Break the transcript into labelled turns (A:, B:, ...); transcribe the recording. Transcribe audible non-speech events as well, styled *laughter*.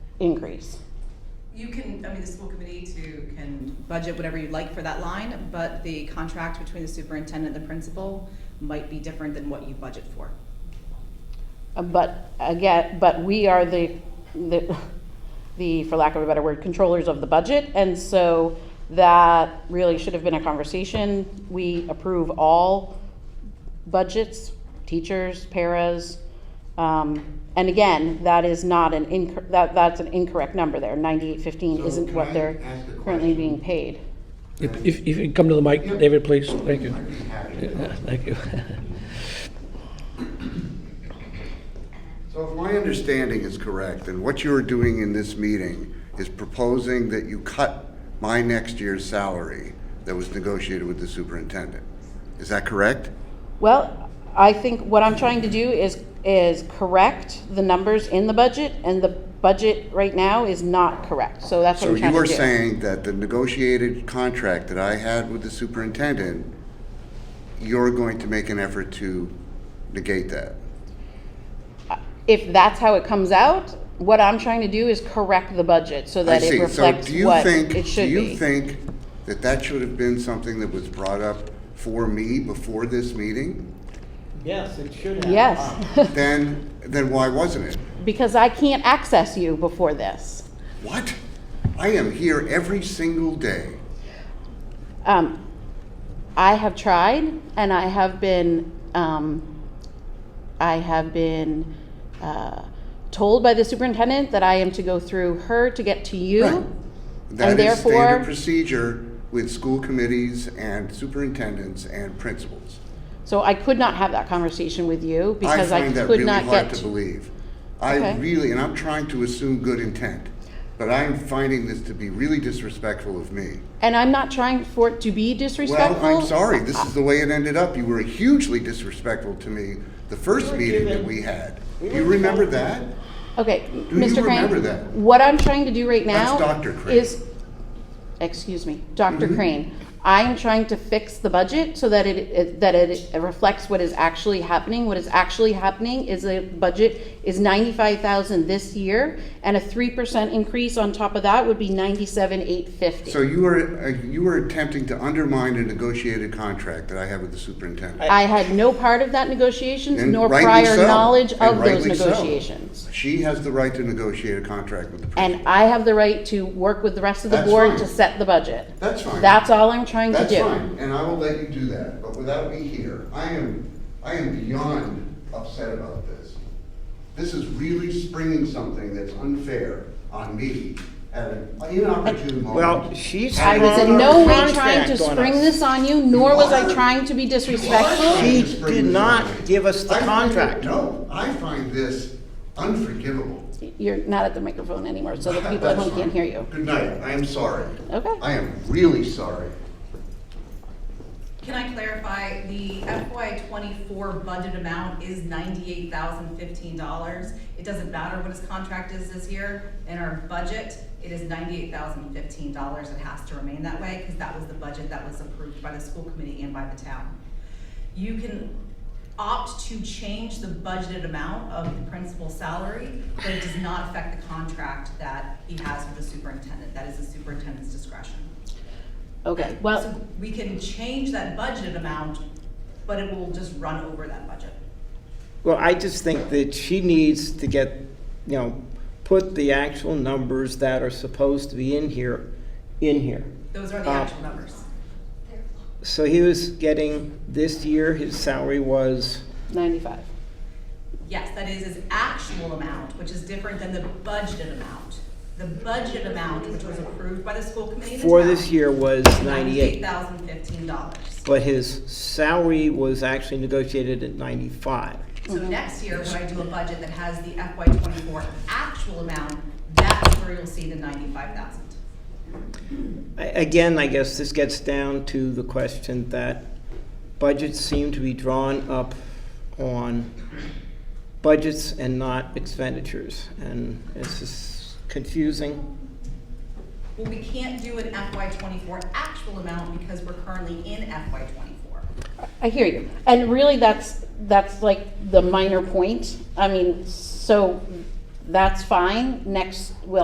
A: increase.
B: You can, I mean, the school committee too can budget whatever you'd like for that line, but the contract between the superintendent and the principal might be different than what you budget for.
A: Uh, But again, but we are the, the, the, for lack of a better word, controllers of the budget. And so that really should have been a conversation. We approve all budgets, teachers, paras. Um, and again, that is not an inc, that, that's an incorrect number there. Ninety-eight fifteen
C: So
A: isn't
C: can
A: what
C: I
A: they're
C: ask a
A: currently
C: question?
A: being paid.
D: If, if if you come to the mic,
C: Yep.
D: David, please, thank you.
C: I'd be happy to
D: Yeah,
C: help.
D: *laughs* Thank you.
C: So if my understanding is correct, then what you are doing in this meeting is proposing that you cut my next year's salary that was negotiated with the superintendent. Is that correct?
A: Well, I think what I'm trying to do is, is correct the numbers in the budget, and the budget right now is not correct, so that's what
C: So
A: I'm trying
C: you
A: to
C: are
A: do.
C: saying that the negotiated contract that I had with the superintendent, you're going to make an effort to negate that?
A: If that's how it comes out, what I'm trying to do is correct the budget so
C: I
A: that it
C: see. So
A: reflects
C: do you
A: what
C: think?
A: it should
C: Do you
A: be.
C: think that that should have been something that was brought up for me before this meeting?
E: Yes, it should have.
A: Yes,
C: Then, then why wasn't it?
A: *laughs* because I can't access you before this.
C: What? I am here every single day.
A: Um, I have tried, and I have been, um, I have been uh, told by the superintendent that I am to go through her to get to you.
C: Right. That is
A: therefore-
C: standard procedure with school committees and superintendents and principals.
A: So I could not have that conversation with you
C: I
A: because I,
C: find that
A: could
C: really
A: not
C: hard
A: get.
C: to
A: to-
C: believe.
A: Okay.
C: I really, and I'm trying to assume good intent, but I'm finding this to be really disrespectful of me.
A: and I'm not trying for it to be disrespectful.
C: Well, I'm sorry, this is the way it ended up. You were hugely disrespectful to me the first
E: were
C: meeting that
E: given-
C: we had.
E: we
C: You
E: were
C: remember
E: told-
C: that?
A: Okay,
C: you
A: Mr. Crane.
C: remember that?
A: What I'm trying to do right now
C: Dr. Crane. Mm-hmm.
A: is, excuse me, doctor Crane. I am trying to fix the budget so that it, it that it, reflects what is actually happening. What is actually happening is the budget is ninety five thousand this year, and a three percent increase on top of that would be ninety seven eight fifty.
C: So you were, uh, you were attempting to undermine a negotiated contract that I have with the superintendent.
A: I had no part of that negotiations
C: And
A: nor
C: rightly
A: prior
C: so.
A: knowledge
C: And
A: of those
C: rightly so.
A: negotiations.
C: She has the right to negotiate a contract with the principal.
A: And I have the right to work with the rest of the
C: That's
A: board
C: fine.
A: to set the budget.
C: That's fine.
A: That's all I'm trying to
C: That's
A: do.
C: fine, and I will let you do that, but without me here, I am, I am beyond upset about this. This is really springing something that's unfair on me at an inopportune moment.
E: Well, she's.
A: I was
E: sprung
A: in
E: a
A: no way
E: contract
A: trying to
E: on
A: spring
E: us.
A: this on you, nor was I
C: are.
A: trying to be disrespectful.
E: She
C: Just bring
E: did
C: this
E: not
C: up.
E: give us the
C: I find it-
E: contract.
C: No, I find this unforgivable.
A: You're not at the microphone anymore, so the people at
C: That's
A: home can't
C: fine.
A: hear you.
C: Good night, I am sorry.
A: Okay.
C: I am really sorry.
B: Can I clarify, the FY twenty-four budget amount is ninety-eight thousand fifteen dollars? It doesn't matter what his contract is this year, in our budget, it is ninety-eight thousand fifteen dollars, it has to remain that way, because that was the budget that was approved by the school committee and by the town. You can opt to change the budgeted amount of the principal's salary, but it does not affect the contract that he has with the superintendent, that is the superintendent's discretion.
A: Okay, well,
B: So we can change that budget amount, but it will just run over that budget.
E: Well, I just think that she needs to get, you know, put the actual numbers that are supposed to be in here, in here.
B: Those are the
E: Uh,
B: actual numbers.
E: So he was getting, this year, his salary was,
A: ninety-five.
B: Yes, that is his actual amount, which is different than the budgeted amount. The budget amount, which was approved by the school committee. and the
E: for
B: town,
E: this year, was ninety-eight.
B: $98,015.
E: But his salary was actually negotiated at ninety-five.
B: So next year, when I do a budget that has the FY twenty-four actual amount, that's where you'll see the ninety-five thousand.
E: I- Again, I guess this gets down to the question that budgets seem to be drawn up on budgets and not expenditures, and it's just confusing.
B: Well, we can't do an FY twenty-four actual amount because we're currently in FY twenty-four.
A: I hear you. And really, that's, that's like the minor point. I mean, so that's fine. Next, we'll